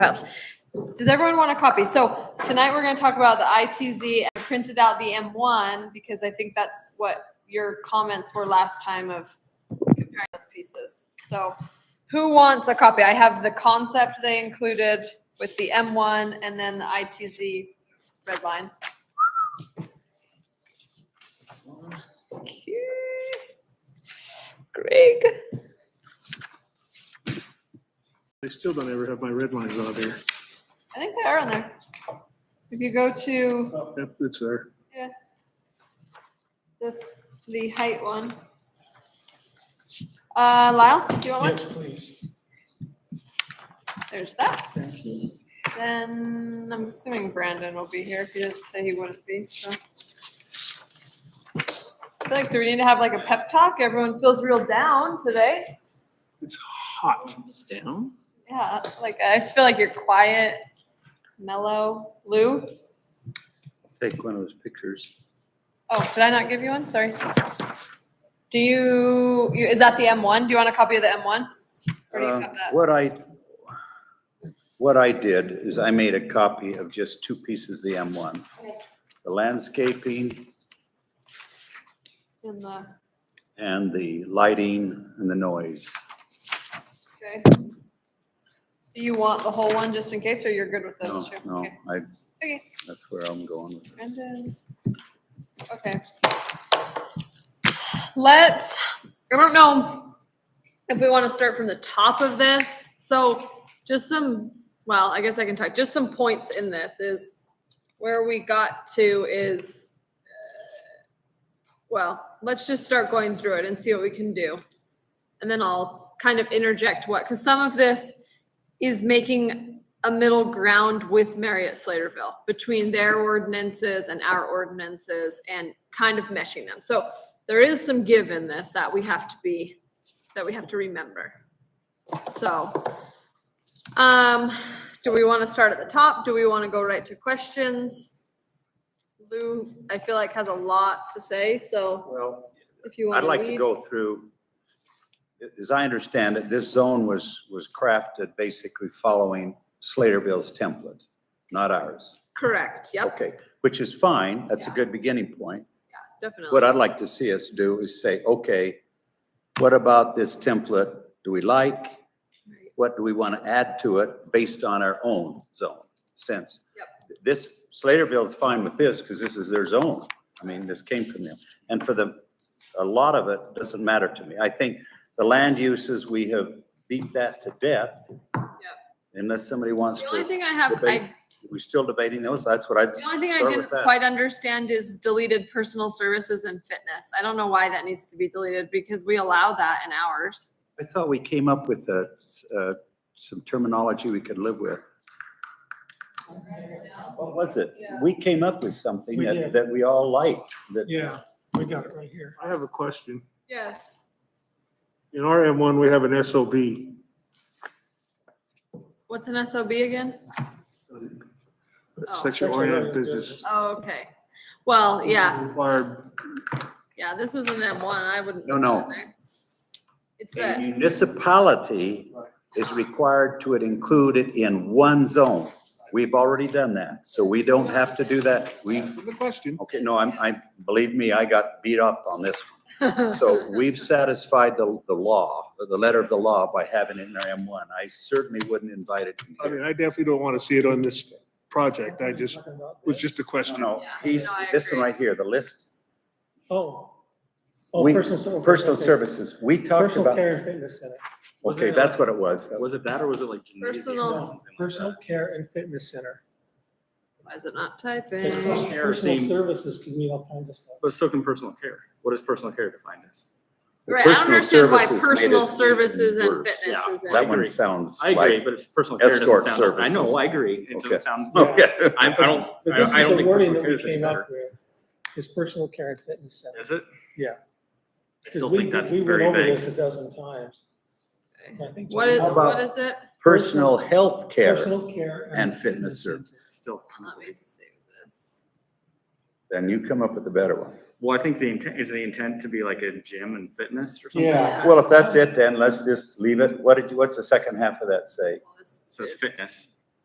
files. Does everyone want a copy? So tonight we're gonna talk about the ITZ. I printed out the M1 because I think that's what your comments were last time of comparing those pieces. So who wants a copy? I have the concept they included with the M1 and then the ITZ red line. Okay. Greg. I still don't ever have my red lines on here. I think they are on there. If you go to Yep, it's there. the, the height one. Uh, Lyle, do you want one? Yes, please. There's that. Thank you. Then I'm assuming Brandon will be here if he didn't say he wouldn't be, so. I feel like, do we need to have like a pep talk? Everyone feels real down today. It's hot. It's down. Yeah, like I just feel like you're quiet, mellow. Lou? take one of those pictures. Oh, did I not give you one? Sorry. Do you, you- is that the M1? Do you want a copy of the M1? Or do you Uh, have that? What I, what I did is I made a copy of just two pieces of the M1. Okay. The landscaping In the, and the lighting and the noise. okay. Do you want the whole one just in case, or you're good with No, those two? no, Okay. I, Okay. that's where I'm going with it. Brendan. Okay. Let's, I don't know if we want to start from the top of this. So just some, well, I guess I can talk, just some points in this is where we got to is, uh, well, let's just start going through it and see what we can do. And then I'll kind of interject what, because some of this is making a middle ground with Marriott Sladeville between their ordinances and our ordinances and kind of meshing them. So there is some give in this that we have to be, that we have to remember. So, um, do we want to start at the top? Do we want to go right to questions? Lou, I feel like has a lot to say, so Well, if you want I'd to like to lead. go through, as I understand it, this zone was, was crafted basically following Slaterville's template, not ours. Correct, yep, Okay, which is fine. That's a Yeah. good beginning point. definitely. What I'd like to see us do is say, okay, what about this template do we like? What do we want to add to it based on our own zone sense? This, Sladeville's fine with this because this is their zone. I mean, this came from them. And for the, a lot of it doesn't matter to me. I think the land uses, we have beat that to death. Unless somebody wants The only to, thing I have, I debate. we're still debating those. That's what I'd The only thing I start didn't with that. quite understand is deleted personal services and fitness. I don't know why that needs to be deleted because we allow that in ours. I thought we came up with uh, s- uh, some terminology we could live with. What was it? Yeah. We came up with something We that, did. that we all liked, that, Yeah, we got it right here. I have a question. Yes. In our M1, we have an SOB. What's an SOB again? Oh. Sexual oriented business. Oh, okay. Well, Oh, Mm-hmm. yeah, Required, yeah, this is an M1. I wouldn't. No, put no. it in there. It's a that, municipality is required to include it in one zone. We've already done that, so we don't have to do that. We, the question. okay, no, I'm, I, believe me, I got beat up on this. one. So we've satisfied the, the law, the letter of the law by having it in our M1. I certainly wouldn't invite it. I mean, I definitely don't want to see it on this project. I just, was just a No, question. no, Yeah, he's, no, I this one agree. right here, the list, Oh. Oh, We- personal. ser- personal okay. services, we talked Personal about, care and fitness center. okay, that's what it was. That was- Was it that or was it like? gymnasium or Personal- something like that? Personal care and fitness center. why is it not 'Cause typing? Personal care Personal seemed- services can mean all kinds of stuff. But so can personal care. What is personal care defined as? the Right, I don't personal understand why services made personal us even services and worse. fitness Yeah, is in. That agree. one sounds I agree, like, but it's personal care doesn't Escort sound. I know, services. I agree. It Okay. doesn't sound. okay, I, I don't, But I this is I don't the think wording personal that care we is any came better. up with. Is personal care and fitness center. Is it? Yeah. I still We- think that's we went very over vague. this A dozen times. And I think What is, How John- about- what is it? personal health care, Personal care. and fitness center. Still. Let me save this. then you come up with a better one. Well, I think the intent, is the intent to be like a gym and fitness or something? Yeah. Well, if that's it, then let's just leave it. What did you, what's the second half of that say? Well, this Says is- fitness.